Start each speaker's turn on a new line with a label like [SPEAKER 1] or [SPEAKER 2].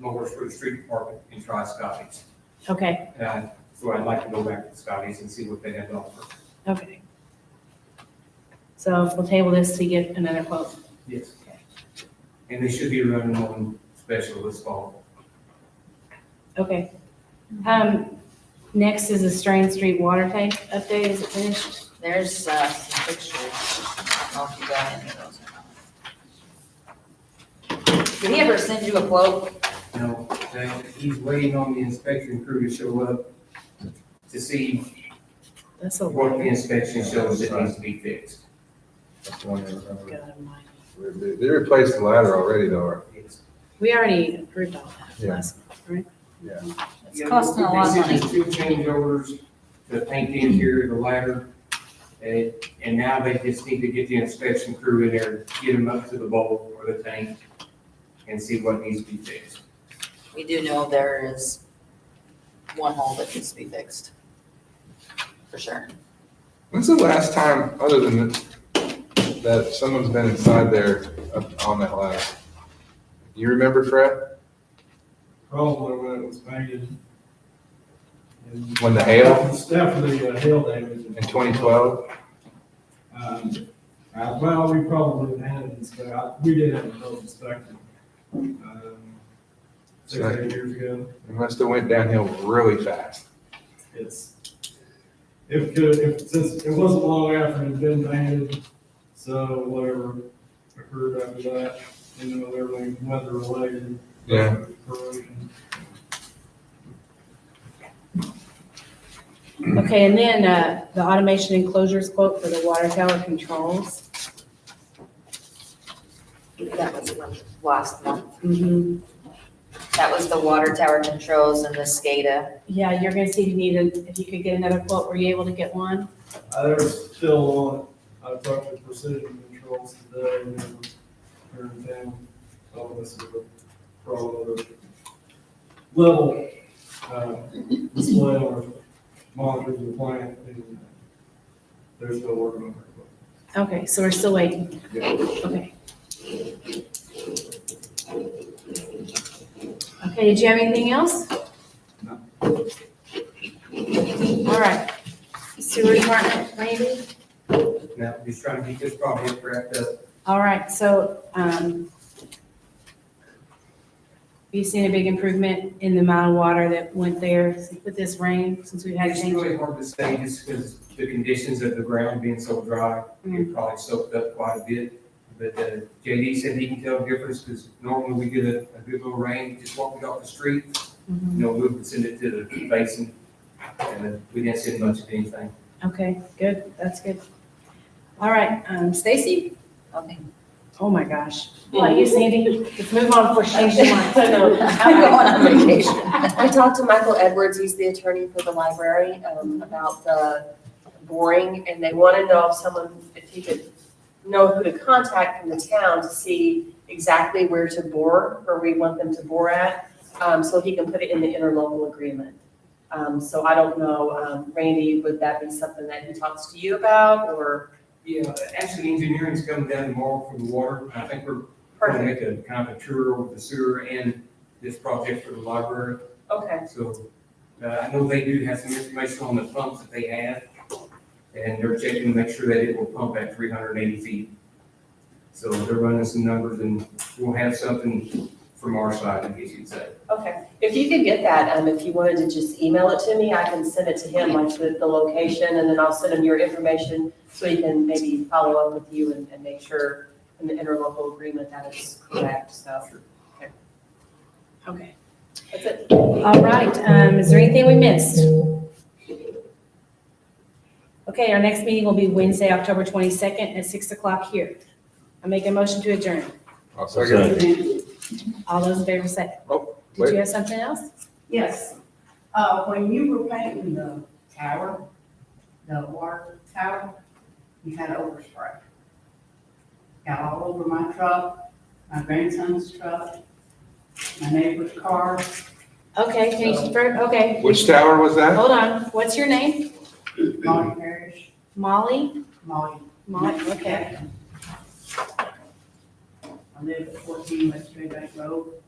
[SPEAKER 1] lowers for the street department and try Scotty's.
[SPEAKER 2] Okay,
[SPEAKER 1] And so I'd like to go back to Scotty's and see what they have to offer.
[SPEAKER 2] okay. So we'll table this to get another quote.
[SPEAKER 1] Yes. And they should be running on special this fall.
[SPEAKER 2] Okay. Um, next is the Strain Street water tank update. Is it finished?
[SPEAKER 3] There's, uh, some pictures. I don't know if you got any of those or not. Did he ever send you a quote?
[SPEAKER 1] Now, that- he's waiting on the inspection crew to show up to see
[SPEAKER 2] That's a
[SPEAKER 1] what the
[SPEAKER 2] lot.
[SPEAKER 1] inspection shows that needs to be fixed.
[SPEAKER 4] That's the one that I remember.
[SPEAKER 2] God almighty.
[SPEAKER 4] They they replaced the ladder already though,
[SPEAKER 1] It's-
[SPEAKER 2] We already approved all that
[SPEAKER 4] Yeah.
[SPEAKER 2] last, right?
[SPEAKER 4] yeah.
[SPEAKER 3] It's costing a lot of
[SPEAKER 1] They said
[SPEAKER 3] money.
[SPEAKER 1] there's two change orders, the paint the interior, the ladder. And, and now they just need to get the inspection crew in there, get them up to the bowl or the tank and see what needs to be fixed.
[SPEAKER 3] We do know there is one hole that needs to be fixed. For sure.
[SPEAKER 4] When's the last time, other than that, that someone's been inside there up on that ladder? You remember Fred,
[SPEAKER 5] Probably when it was painted. And
[SPEAKER 4] when the hail
[SPEAKER 5] It's definitely a hail damage.
[SPEAKER 4] in twenty twelve?
[SPEAKER 5] Um, uh, well, we probably had it inspected, we did have it built inspected. um, Six, eight years ago,
[SPEAKER 4] It must have went downhill really fast.
[SPEAKER 5] it's, if could, if, since, it wasn't long after it had been painted, so whatever occurred after that, you know, everything weather related.
[SPEAKER 4] Yeah.
[SPEAKER 5] Corrosion.
[SPEAKER 2] Okay, and then, uh, the automation enclosures quote for the water tower controls.
[SPEAKER 3] That was from last month.
[SPEAKER 2] Mhm.
[SPEAKER 3] That was the water tower controls and the SCADA.
[SPEAKER 2] Yeah, you're gonna see if you need, a- if you could get another quote. Were you able to get one?
[SPEAKER 5] Uh, They're still on, I talked to Precision Controls today, and they were here in town, so this is a problem of level, uh, display or monitors in the plant, and there's no working on it.
[SPEAKER 2] Okay, so we're still waiting.
[SPEAKER 4] Yeah.
[SPEAKER 2] Okay. Okay, did you have anything else?
[SPEAKER 5] No.
[SPEAKER 2] All right. Sewer department, maybe?
[SPEAKER 1] Now, just trying to get this project wrapped up.
[SPEAKER 2] All right, so, um, we've seen a big improvement in the amount of water that went there with this rain, since we've had
[SPEAKER 1] It's
[SPEAKER 2] change.
[SPEAKER 1] really hard to say just because the conditions of the ground being so dry, it probably soaked up quite a bit. But uh, JD said he can tell the difference because normally we get a, a good little rain, just walk it off the street,
[SPEAKER 2] Mhm.
[SPEAKER 1] you know, move and send it to the basin. And uh, we didn't send much of anything.
[SPEAKER 2] Okay, good, that's good. All right, um, Stacy?
[SPEAKER 3] Okay.
[SPEAKER 2] Oh, my gosh. Well, you, Sandy, let's move on before she changes mind.
[SPEAKER 6] I know.
[SPEAKER 3] I'm going on vacation.
[SPEAKER 6] I talked to Michael Edwards, he's the attorney for the library, um, about the boring, and they want to know if someone, if he could know who to contact from the town to see exactly where to bore, where we want them to bore at, um, so he can put it in the interlocal agreement. Um, so I don't know, um, Randy, would that be something that he talks to you about, or?
[SPEAKER 1] Yeah, actually engineering's coming down tomorrow for the water. I think we're going to make
[SPEAKER 6] Perfect,
[SPEAKER 1] a kind of a tour over the sewer and this project for the library.
[SPEAKER 6] okay.
[SPEAKER 1] So, uh, I know they do have some information on the pumps that they have, and they're checking to make sure that it will pump at three hundred and eighty feet. So they're running some numbers, and we'll have something from our side, I guess you'd say.
[SPEAKER 6] Okay, if you could get that, um, if you wanted to just email it to me, I can send it to him, like the, the location, and then I'll send him your information so he can maybe follow up with you and, and make sure in the interlocal agreement that is correct, so
[SPEAKER 2] Okay.
[SPEAKER 6] that's it.
[SPEAKER 2] All right, um, is there anything we missed? Okay, our next meeting will be Wednesday, October twenty-second at six o'clock here. I make a motion to adjourn.
[SPEAKER 4] I'll second.
[SPEAKER 2] All those in favor say,
[SPEAKER 4] Oh,
[SPEAKER 2] did
[SPEAKER 4] wait.
[SPEAKER 2] you have something else?
[SPEAKER 7] Yes, uh, when you were painting the tower, the water tower, you had overspray. Got all over my truck, my grandson's truck, my neighbor's car.
[SPEAKER 2] Okay, can you, fir- okay,
[SPEAKER 4] Which tower was that?
[SPEAKER 2] hold on, what's your name?
[SPEAKER 7] Molly Parrish,
[SPEAKER 2] Molly?
[SPEAKER 7] Molly.
[SPEAKER 2] Molly, okay.
[SPEAKER 7] I live at fourteen West Red Bank Road.